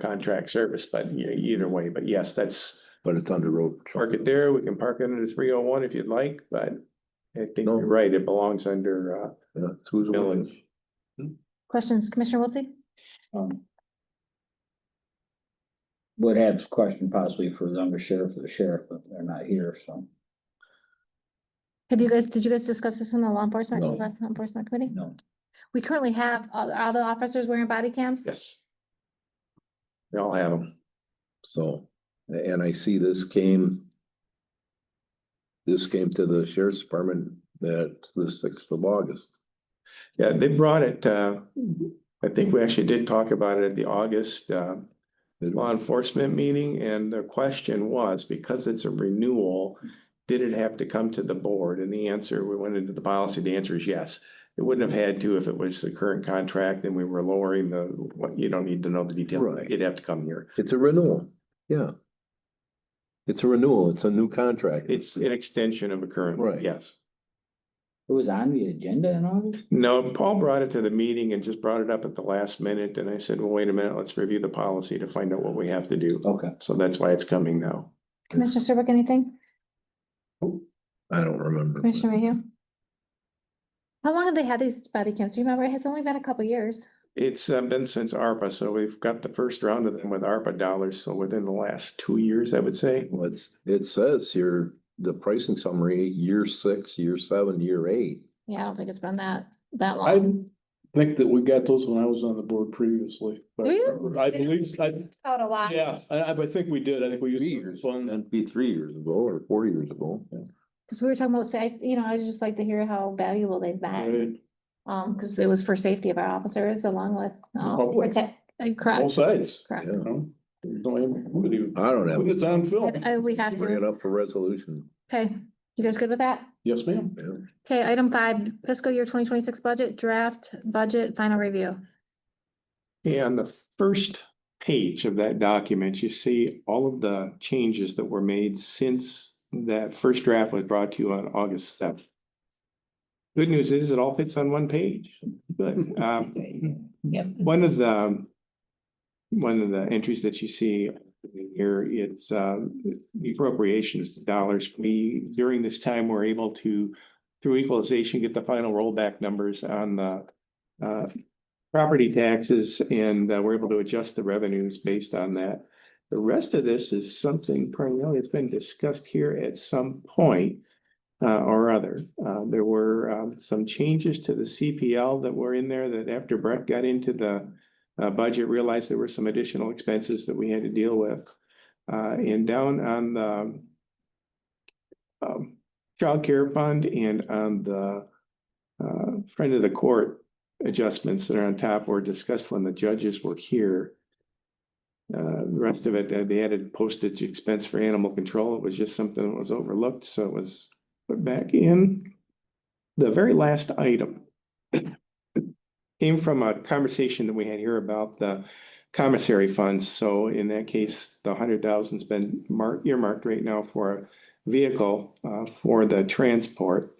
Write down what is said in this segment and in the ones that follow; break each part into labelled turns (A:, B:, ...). A: contract service, but e- either way, but yes, that's.
B: but it's under road. patrol.
A: Park it there, we can park it under three oh one if you'd like, but I think
B: No.
A: you're right, it belongs under, uh,
B: Yeah, it's who's the one that's-
C: Questions, Commissioner Wiltie?
D: um, Would have question possibly for the undersheriff or the sheriff, but they're not here, so
C: Have you guys, did you guys discuss this in the law enforcement,
B: No.
C: last law enforcement committee?
D: no.
C: We currently have all, all the officers wearing body cams?
A: yes. We all have them.
B: So, a- and I see this came. This came to the sheriff's department that the sixth of August.
A: Yeah, they brought it, uh, I think we actually did talk about it at the August, uh,
B: Did-
A: law enforcement meeting, and the question was, because it's a renewal, did it have to come to the board? And the answer, we went into the policy, the answer is yes. It wouldn't have had to if it was the current contract and we were lowering the, what, you don't need to know the detail.
B: Right.
A: It'd have to come here.
B: It's a renewal, yeah. It's a renewal, it's a new contract.
A: It's an extension of a current,
B: Right.
A: one, yes.
D: It was on the agenda in August?
A: No, Paul brought it to the meeting and just brought it up at the last minute, and I said, well, wait a minute, let's review the policy to find out what we have to do.
D: Okay,
A: So that's why it's coming now.
C: Commissioner Serbuk, anything?
B: I don't remember.
C: Commissioner Mayhew? How long have they had these body cams? Do you remember? It's only been a couple years.
A: It's uh, been since ARPA, so we've got the first round of them with ARPA dollars, so within the last two years, I would say.
B: What's, it says here, the pricing summary, year six, year seven, year eight.
C: Yeah, I don't think it's been that, that
E: I
C: long.
E: think that we got those when I was on the board previously. but
C: Do you?
E: I believe, I,
C: Out a lot.
E: yeah, I, I I think we did. I think we used one.
B: That'd be three years ago or four years ago.
C: Cause we were talking about, sa- I- you know, I just like to hear how valuable they've been,
E: Right,
C: um, cause it was for safety of our officers along with, um,
E: public.
C: protect, uh,
E: both
C: correct,
E: sides.
C: correct.
B: Yeah.
E: you know? Don't even- who would even-
B: I don't have,
E: It's on film.
C: I- I- uh, we have
B: bring it
C: to,
B: up for resolution.
C: okay, you guys good with that?
E: Yes, ma'am.
B: Yeah.
C: Okay, item five, fiscal year twenty twenty-six budget, draft, budget, final review.
A: Yeah, on the first page of that document, you see all of the changes that were made since that first draft was brought to you on August seventh. Good news is it all fits on one page, but um, One of the, one of the entries that you see here, it's um, the appropriations dollars. We, during this time, were able to, through equalization, get the final rollback numbers on the uh, property taxes and uh, we're able to adjust the revenues based on that. The rest of this is something primarily that's been discussed here at some point uh, or other. Uh, there were, um, some changes to the CPL that were in there that after Brett got into the uh, budget, realized there were some additional expenses that we had to deal with. Uh, and down on the um, childcare fund and on the uh, friend of the court adjustments that are on top were discussed when the judges were here. Uh, the rest of it, uh, they added postage expense for animal control. It was just something that was overlooked, so it was put back in. The very last item came from a conversation that we had here about the commissary funds. So in that case, the hundred thousand's been marked, earmarked right now for a vehicle uh, for the transport.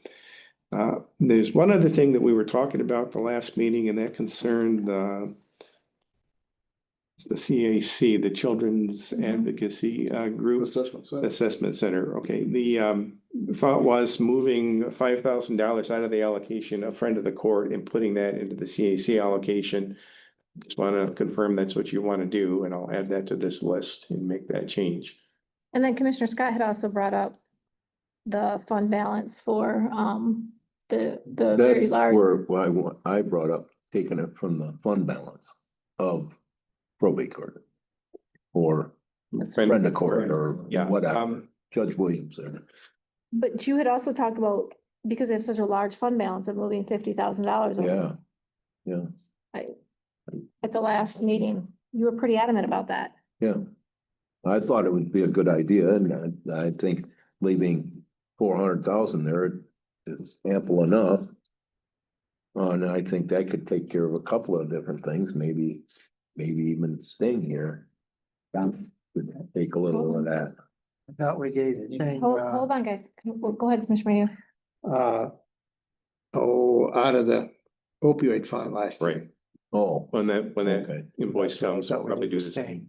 A: Uh, There's one other thing that we were talking about the last meeting, and that concerned the it's the CAC, the Children's
C: Mhm.
A: Advocacy uh, Group.
E: Assessment side.
A: Assessment Center, okay, the um thought was moving five thousand dollars out of the allocation, a friend of the court, and putting that into the CAC allocation. Just wanna confirm that's what you wanna do, and I'll add that to this list and make that change.
C: And then Commissioner Scott had also brought up the fund balance for, um, the, the very
B: That's
C: large.
B: where, why I wa- I brought up taking it from the fund balance of probate court. Or friend of court or
A: Yeah,
B: whatever,
A: um,
B: Judge Williams there.
C: But you had also talked about, because they have such a large fund balance of moving fifty thousand dollars.
B: Yeah,
C: At the last meeting, you were pretty adamant about that.
B: yeah. I thought it would be a good idea and I, I think leaving four hundred thousand there is ample enough. Uh, And I think that could take care of a couple of different things, maybe, maybe even staying here.
D: Um,
B: Could Take a little of that.
F: I thought we gave it. thing,
C: Hold,
F: uh,
C: hold on, guys. Go go ahead, Commissioner Mayhew.
F: Uh, oh, out of the opioid fund last. year.
A: Right,
B: Oh,
A: when that, when that
B: okay.
A: invoice comes,
F: Thought
A: I'll
F: we
A: probably
F: did
A: do
F: the
A: the same.
F: same.